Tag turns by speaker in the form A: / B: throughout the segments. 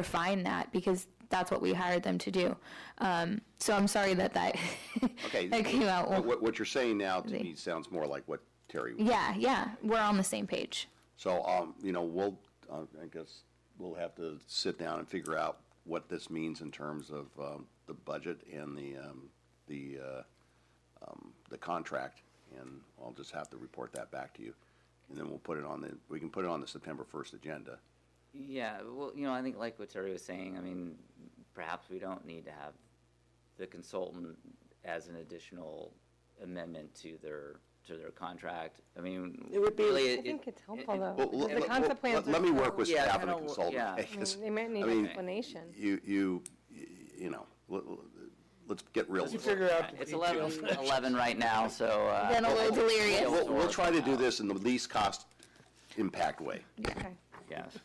A: refine that because that's what we hired them to do. Um, so I'm sorry that that,
B: Okay.
A: that came out.
B: But What, what you're saying now to
A: They-
B: me sounds more like what Terry. was.
A: yeah, yeah, we're on the same page.
B: So, um, you know, we'll, uh, I guess, we'll have to sit down and figure out what this means in terms of, um, the budget and the, um, the, uh, um, the contract. And I'll just have to report that back to you. And then we'll put it on the, we can put it on the September first agenda.
C: Yeah, well, you know, I think like what Terry was saying, I mean, perhaps we don't need to have the consultant as an additional amendment to their, to their contract. I mean,
D: It would be-
C: really,
D: I
C: it-
E: think
C: it-
E: it's helpful,
C: it-
E: though.
B: Well,
E: Because
B: let-
E: the
B: let-
E: concept
B: let-
E: plans are
B: Let me
E: so-
B: work with
C: Yeah,
B: staff and
C: kinda
B: the
C: wo-
B: consultant.
C: yeah.
E: I mean, They might need
B: I mean,
E: explanation.
B: You, you, you know, let- let's get real.
D: Let's
B: with it.
D: figure out.
C: It's 11, 11 right now, so. uh,
A: Then a little delirious.
B: We'll, we'll try to do this in the least cost impact way.
E: Okay.
C: Yes.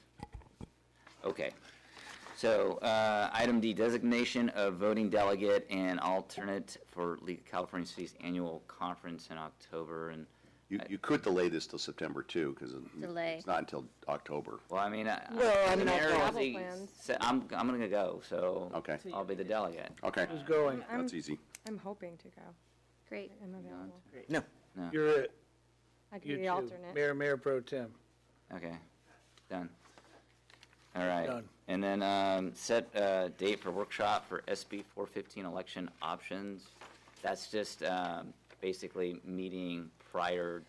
C: Okay. So, uh, item D, designation of voting delegate and alternate for Le- California City's annual conference in October. And,
B: You, you could delay this till September too, because
F: Delay.
B: it's not until October.
C: well, I mean, I.
D: Well, I mean,
C: Mary
D: I'll-
C: was
E: Travel
C: the-
E: plans.
C: said- I'm, I'm gonna go, so.
B: Okay.
C: I'll be the delegate.
B: Okay,
D: Who's going?
E: I'm,
B: that's easy.
E: I'm hoping to go.
F: Great.
E: I'm available.
D: No.
C: No.
D: You're it.
E: I could
D: You
E: be the
D: two.
E: alternate.
D: Mayor, Mayor Pro Tem.
C: Okay, done. All right,
D: Done.
C: and then, um, set a date for workshop for SB four fifteen election options. That's just, um, basically meeting prior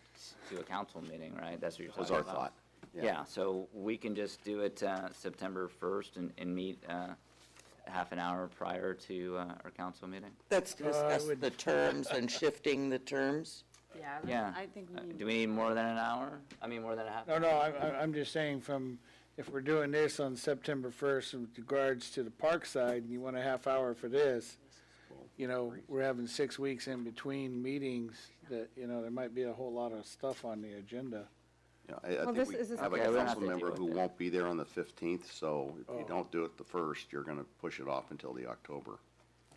C: to a council meeting, right? That's what you're
B: Was
C: talking
B: our
C: about?
B: thought.
C: Yeah, so we can just do it, uh, September first and, and meet, uh, half an hour prior to, uh, our council meeting?
G: That's to
D: I
G: discuss
D: would-
G: the terms and shifting the terms.
H: Yeah,
C: Yeah.
H: that's- I think
C: Uh,
H: we need.
C: Do we need more than an hour? I mean, more than a half?
D: No, no, I'm, I'm- I'm just saying from, if we're doing this on September first with regards to the park side, and you want a half hour for this, you know, we're having six weeks in between meetings that, you know, there might be a whole lot of stuff on the agenda.
B: Yeah, I, I
E: Well,
B: think
E: this-
B: we
E: is this
B: have a
C: okay? Yeah, we'll have
B: council
C: to deal
B: member
C: with
B: who
C: it.
B: won't be there on the fifteenth, so if you
D: Oh.
B: don't do it the first, you're gonna push it off until the October.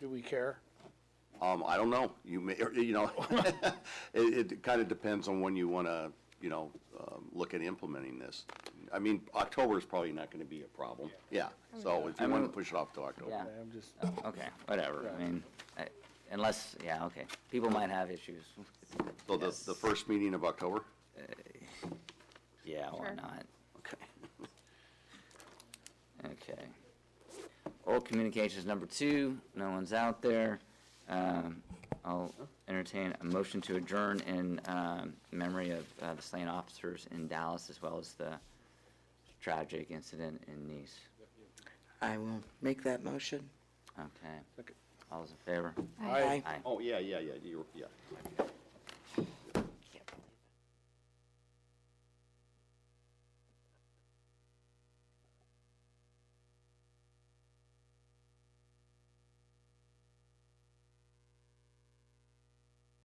D: Do we care?
B: Um, I don't know. You may, or, you know, it, it kind of depends on when you want to, you know, um, look at implementing this. I mean, October is probably not going to be a problem. Yeah. So if you want to push it off to
C: Yeah.
B: October.
D: I'm just,
C: Okay, whatever, I mean, I- unless, yeah, okay, people might have issues,
B: So the, the first meeting of October?
C: yeah, why
E: Sure.
C: not?
B: Okay.
C: Okay. Oral communications number two, no one's out there. Um, I'll entertain a motion to adjourn in um, memory of uh, the slain officers in Dallas as well as the tragic incident in Nice.
G: I will make that motion.
C: Okay.
D: Okay.
C: All those in favor?
D: I,
C: Aye.
B: Oh, yeah, yeah, yeah, you're, yeah.